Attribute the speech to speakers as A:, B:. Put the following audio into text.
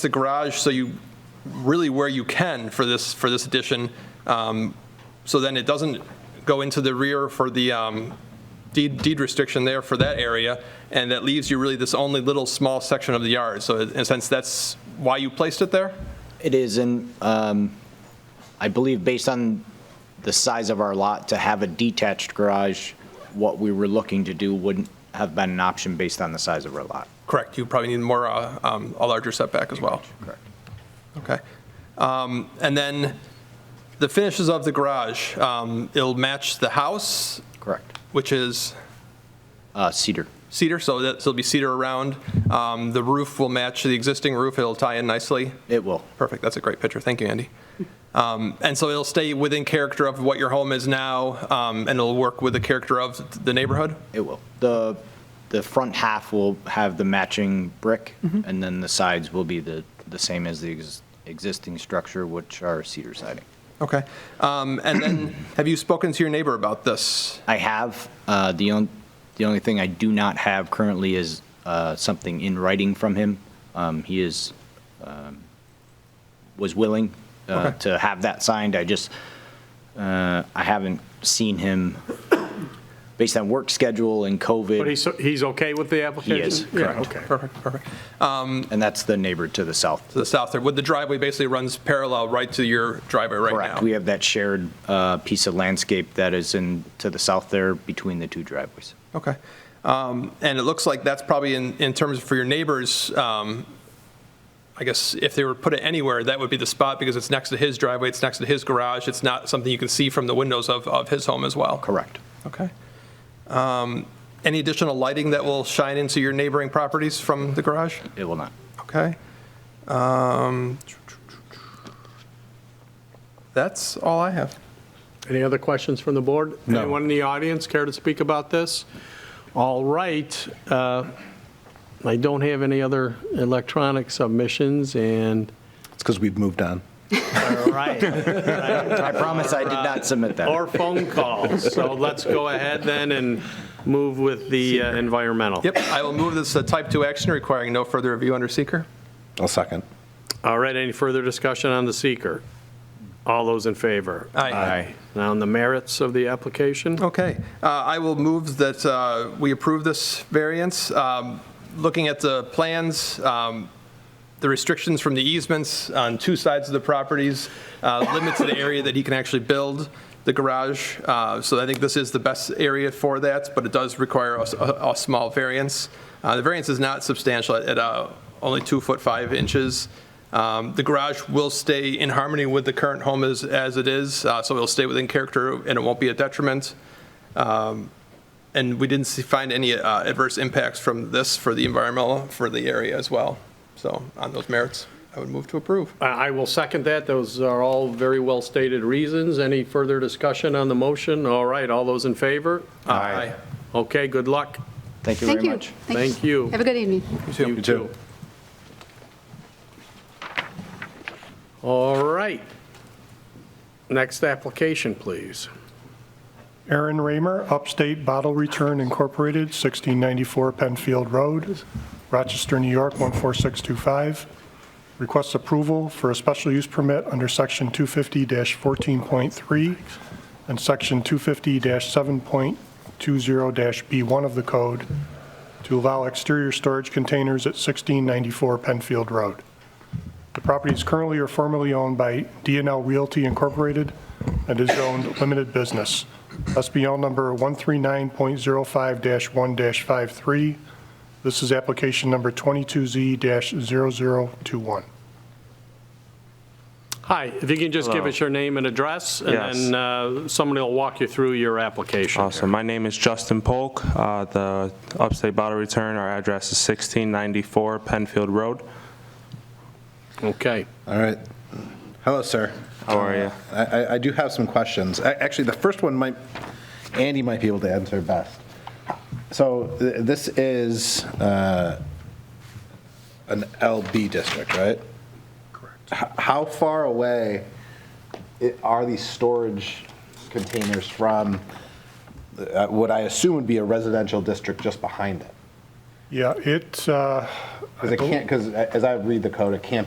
A: the garage so you, really where you can for this, for this addition. um, So then it doesn't go into the rear for the um, deed deed restriction there for that area, and that leaves you really this only little small section of the yard. So in a sense, that's why you placed it there?
B: It is, and um, I believe based on the size of our lot, to have a detached garage, what we were looking to do wouldn't have been an option based on the size of our lot.
A: Correct, you probably need more, uh, um, a larger setback as well.
B: Correct.
A: Okay. Um, And then the finishes of the garage, um, it'll match the house,
B: Correct.
A: which is
B: Uh, Cedar.
A: cedar, so that, so it'll be cedar around. Um, The roof will match the existing roof, it'll tie in nicely.
B: It will.
A: Perfect, that's a great picture, thank you, Andy. Um, And so it'll stay within character of what your home is now, um, and it'll work with the character of the neighborhood?
B: It will. The, the front half will have the matching brick, and then the sides will be the, the same as the ex- existing structure, which are cedar siding.
A: Okay. Um, And then, have you spoken to your neighbor about this?
B: I have, uh, the only, the only thing I do not have currently is, uh, something in writing from him. Um, he is, um, was willing, uh,
A: Okay.
B: to have that signed. I just, uh, I haven't seen him based on work schedule and
C: But
B: COVID,
C: he's, he's okay with the application?
B: is,
C: Yeah, okay.
A: Perfect, perfect.
B: and that's the neighbor to the south.
A: To the south there, would the driveway basically runs parallel right to your driveway right now?
B: Correct. We have that shared, uh, piece of landscape that is in, to the south there between the two driveways.
A: Okay. Um, And it looks like that's probably in, in terms for your neighbors, um, I guess if they were to put it anywhere, that would be the spot because it's next to his driveway, it's next to his garage, it's not something you can see from the windows of, of his home as well.
B: Correct.
A: Okay. Um, Any additional lighting that will shine into your neighboring properties from the garage?
B: It will not.
A: Okay. Um, That's all I have.
C: Any other questions from the board?
D: No.
C: Anyone in the audience care to speak about this? All right. uh, I don't have any other electronic submissions, and,
D: It's because we've moved on.
C: all right,
B: I promise I did not submit that.
C: or phone calls. So let's go ahead then and move with the uh, environmental.
A: Yep, I will move this to type 2 action requiring no further review under seeker.
D: I'll second.
C: All right, any further discussion on the seeker? All those in favor?
A: Aye. Aye.
C: Now, on the merits of the application?
A: Okay, uh, I will move that uh, we approve this variance. Um, Looking at the plans, um, the restrictions from the easements on two sides of the properties uh, limit to the area that he can actually build the garage. Uh, So I think this is the best area for that, but it does require a, s- a- a small variance. Uh, The variance is not substantial at- at uh, only two foot five inches. Um, The garage will stay in harmony with the current home as, as it is, uh, so it'll stay within character and it won't be a detriment. Um, And we didn't see- find any uh, adverse impacts from this for the environmental, for the area as well. So on those merits, I would move to approve.
C: I I will second that. Those are all very well-stated reasons. Any further discussion on the motion? All right, all those in favor?
A: Aye.
C: Okay, good luck.
B: Thank you
E: Thank
B: very
E: you.
B: much.
C: Thank you.
E: Have a good evening.
C: You too. All right. Next application, please.
F: Aaron Raymer, Upstate Bottle Return Incorporated, 1694 Penfield Road, Rochester, New York, 14625. Requests approval for a special use permit under Section 250-14.3 and Section 250-7.20-B1 of the code to allow exterior storage containers at 1694 Penfield Road. The property is currently or formerly owned by DNL Realty Incorporated and is owned limited business. SBL number 139.05-1-53. This is application number 22Z-0021.
C: Hi, if you can just give
G: Hello.
C: us your name and address, and
G: Yes.
C: then uh, somebody will walk you through your application.
G: Awesome. Uh, My name is Justin Polk. Uh, The Upstate Bottle Return, our address is 1694 Penfield Road.
C: Okay.
D: All right. Hello, sir.
G: How are you?
D: I- I, I do have some questions. A- Actually, the first one might, Andy might be able to answer best. So th- this is uh, an LB district, right? Correct. How far away i- are these storage containers from uh, what I assume would be a residential district just behind it?
F: Yeah, it, uh,
D: Because it can't, because as uh, I read the code, it can't